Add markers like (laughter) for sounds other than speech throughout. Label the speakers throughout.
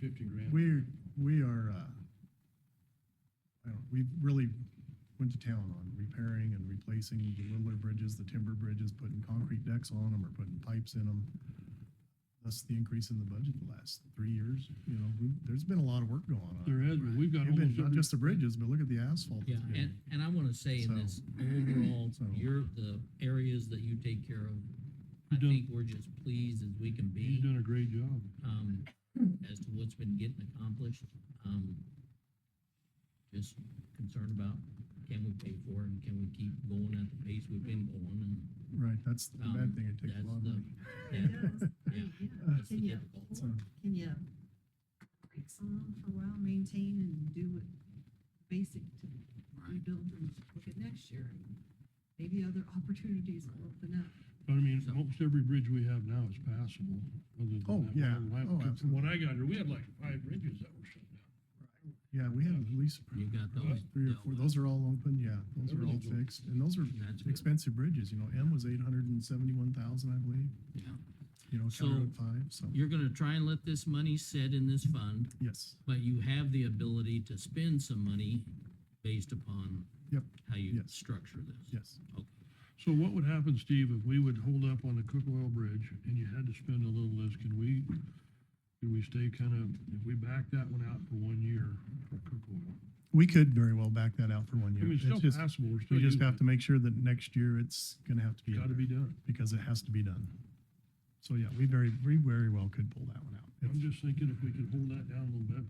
Speaker 1: fifty grand.
Speaker 2: We, we are, uh, I don't, we really went to town on repairing and replacing the littler bridges, the timber bridges, putting concrete decks on them or putting pipes in them. That's the increase in the budget the last three years, you know, we, there's been a lot of work going on.
Speaker 1: There has, but we've got
Speaker 2: You've been,
Speaker 1: almost
Speaker 2: not
Speaker 1: every,
Speaker 2: just the bridges, but look at the asphalt.
Speaker 3: Yeah,
Speaker 2: that's been-
Speaker 3: and, and I want to say in this overall,
Speaker 2: (clears throat) So-
Speaker 3: your, the areas that you take care of, I
Speaker 1: You've done-
Speaker 3: think we're just pleased as we can
Speaker 1: he's
Speaker 3: be,
Speaker 1: done a great job.
Speaker 3: um, as to what's been getting accomplished. Um, just concerned about can we pay for it and can we keep going at the pace we've been going and
Speaker 2: Right, that's the
Speaker 3: Um,
Speaker 2: bad thing, it takes a
Speaker 3: that's
Speaker 2: lot of
Speaker 3: the-
Speaker 2: money.
Speaker 3: yeah.
Speaker 4: (laughs) Yeah,
Speaker 3: that's the
Speaker 4: Can you
Speaker 3: difficult
Speaker 2: So,
Speaker 4: afford- can you break some off for a while, maintain and do what basic to rebuild and look at next year? and Maybe other opportunities will open up.
Speaker 1: But I mean,
Speaker 3: So-
Speaker 1: most every bridge we have now is passable, other than that.
Speaker 2: Oh,
Speaker 1: one
Speaker 2: yeah.
Speaker 1: on Lime-
Speaker 2: Oh,
Speaker 1: because When I got here, we had like five bridges that were shut down.
Speaker 2: Yeah, we have at least
Speaker 3: you got those.
Speaker 2: three or
Speaker 3: dealt
Speaker 2: four,
Speaker 3: with.
Speaker 2: those are all open, yeah, those are all
Speaker 1: Everything's open.
Speaker 2: fixed, and those are
Speaker 3: That's good,
Speaker 2: expensive bridges, you know, M was eight hundred and seventy-one thousand, I believe,
Speaker 3: yeah.
Speaker 2: you know,
Speaker 3: So-
Speaker 2: County Road Five, so,
Speaker 3: You're gonna try and let this money sit in this fund.
Speaker 2: yes,
Speaker 3: But you have the ability to spend some money based upon
Speaker 2: Yep.
Speaker 3: how you
Speaker 2: Yes.
Speaker 3: structure this.
Speaker 2: yes.
Speaker 1: So what would happen, Steve, if we would hold up on the Cook Oil Bridge and you had to spend a little less, can we, can we stay kind of, if we back that one out for one year for Cook Oil?
Speaker 2: We could very well back that out for one
Speaker 1: I
Speaker 2: year.
Speaker 1: mean, it's
Speaker 2: It's
Speaker 1: still
Speaker 2: just,
Speaker 1: passable, we're still
Speaker 2: we just
Speaker 1: using
Speaker 2: have to make sure that next year it's gonna have to
Speaker 1: it.
Speaker 2: be, in
Speaker 1: Gotta
Speaker 2: there,
Speaker 1: be done.
Speaker 2: because it has to be done. So, yeah, we very, we very well could pull that one out.
Speaker 1: I'm just thinking if we could hold that down a little bit.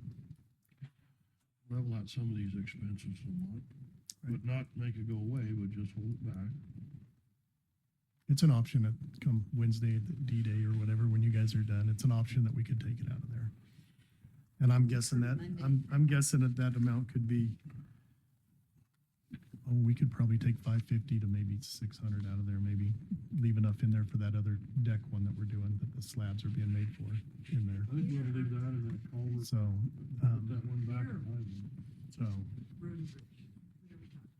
Speaker 1: Level out some of these expenses a lot, but not make it go away, but just hold it back.
Speaker 2: It's an option that come Wednesday, D-Day or whatever, when you guys are done, it's an option that we could take it out of there. And I'm guessing that,
Speaker 4: Monday.
Speaker 2: I'm, I'm guessing that that amount could be, oh, we could probably take five fifty to maybe six hundred out of there, maybe leave enough in there for that other deck one that we're doing, that the slabs are being made for in there.
Speaker 1: I think we ought to leave that in that culvert,
Speaker 2: So,
Speaker 1: put
Speaker 2: um,
Speaker 1: that one back. in line.
Speaker 2: so,
Speaker 4: Road and bridge. whatever we talk.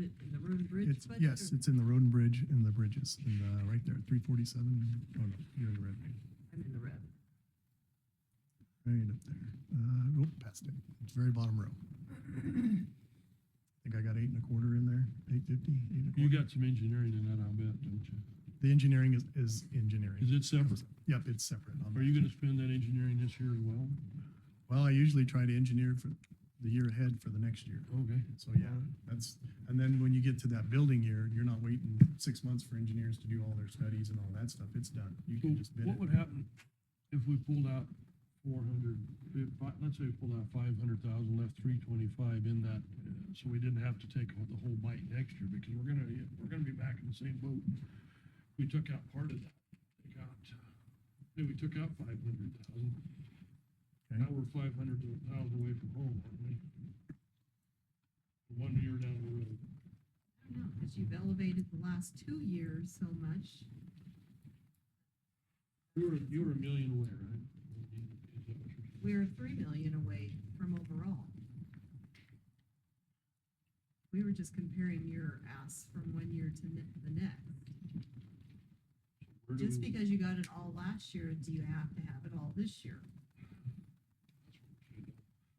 Speaker 4: Is it in the road and bridge
Speaker 2: it's,
Speaker 4: budget?
Speaker 2: yes,
Speaker 4: or-
Speaker 2: it's in the road and bridge and the bridges, and, uh, right there, three forty-seven, oh no, you're in the red.
Speaker 4: I'm in the red.
Speaker 2: Right up there. Uh, oh, past it. It's very bottom row. I think I got eight and a quarter in there, eight fifty, eight and a
Speaker 1: You
Speaker 2: quarter.
Speaker 1: got some engineering in that, I bet, don't you?
Speaker 2: The engineering is, is engineering.
Speaker 1: Is it separate?
Speaker 2: Yep, it's separate. on
Speaker 1: Are
Speaker 2: that.
Speaker 1: you gonna spend that engineering this year as well?
Speaker 2: Well, I usually try to engineer for the year ahead for the next year.
Speaker 1: Okay.
Speaker 2: So yeah, that's, and then when you get to that building year, you're not waiting six months for engineers to do all their studies and all that stuff. It's done. You
Speaker 1: So
Speaker 2: can just bid
Speaker 1: what
Speaker 2: it.
Speaker 1: would happen if we pulled out four hundred, let's say we pulled out five hundred thousand, left three twenty-five in that, uh, so we didn't have to take the whole bite next year, because we're gonna, we're gonna be back in the same boat. We took out part of that, take out, yeah, we took out five hundred thousand.
Speaker 2: Okay.
Speaker 1: Now we're five hundred thousand away from home, aren't we? One year down the road.
Speaker 4: I don't know, because you've elevated the last two years so much.
Speaker 1: You were, you were a million away, right? Is that what you're saying?
Speaker 4: We're three million away from overall. We were just comparing your ass from one year to ne- the next.
Speaker 1: Where do
Speaker 4: Just
Speaker 1: we-
Speaker 4: because you got it all last year, do you have to have it all this year?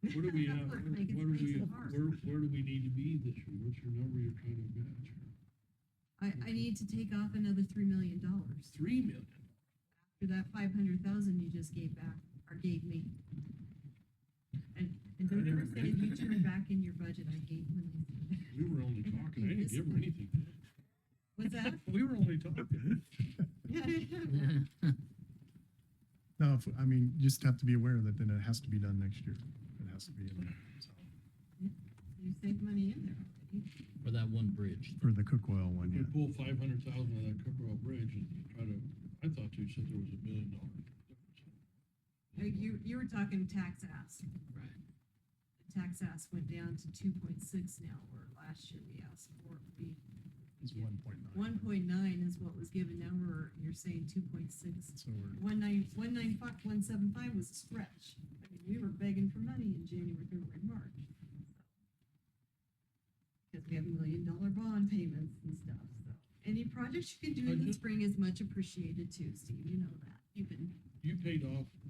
Speaker 1: Where do
Speaker 4: (laughs)
Speaker 1: we, uh,
Speaker 4: Look,
Speaker 1: where
Speaker 4: like it's
Speaker 1: where do we,
Speaker 4: nice and hard.
Speaker 1: where, where do we need to be this year? What's your number you're trying to match?
Speaker 4: I, I need to take off another three million dollars
Speaker 1: Three million.
Speaker 4: for that five hundred thousand you just gave back, or gave me. And, and don't ever say if you turn back in your budget, I gave you.
Speaker 1: We were only talking, I didn't give her anything.
Speaker 4: What's that?
Speaker 1: (laughs) We were only talking.
Speaker 2: No, if- I mean, you just have to be aware that then it has to be done next year. It has to be in there, so.
Speaker 4: You saved money in there already.
Speaker 3: For that one bridge.
Speaker 2: For the cook oil one,
Speaker 1: We
Speaker 2: yeah.
Speaker 1: pulled five hundred thousand out of that Cooper Hall Bridge and try to, I thought you said there was a million dollar. difference.
Speaker 4: Uh, You, you were talking tax ass.
Speaker 3: Right.
Speaker 4: The Tax ass went down to two point six now, where last year we asked for it to be
Speaker 2: It's one point nine.
Speaker 4: One point nine is what was given, now we're, you're saying two point six.
Speaker 2: So we're,
Speaker 4: One nine, one nine five, one seven five was a stretch. I mean, we were begging for money in January, February, March. Because we have million dollar bond payments and stuff, so. Any projects you can do in the
Speaker 1: Budget?
Speaker 4: spring is much appreciated too, Steve, you know that. You've been
Speaker 1: You paid off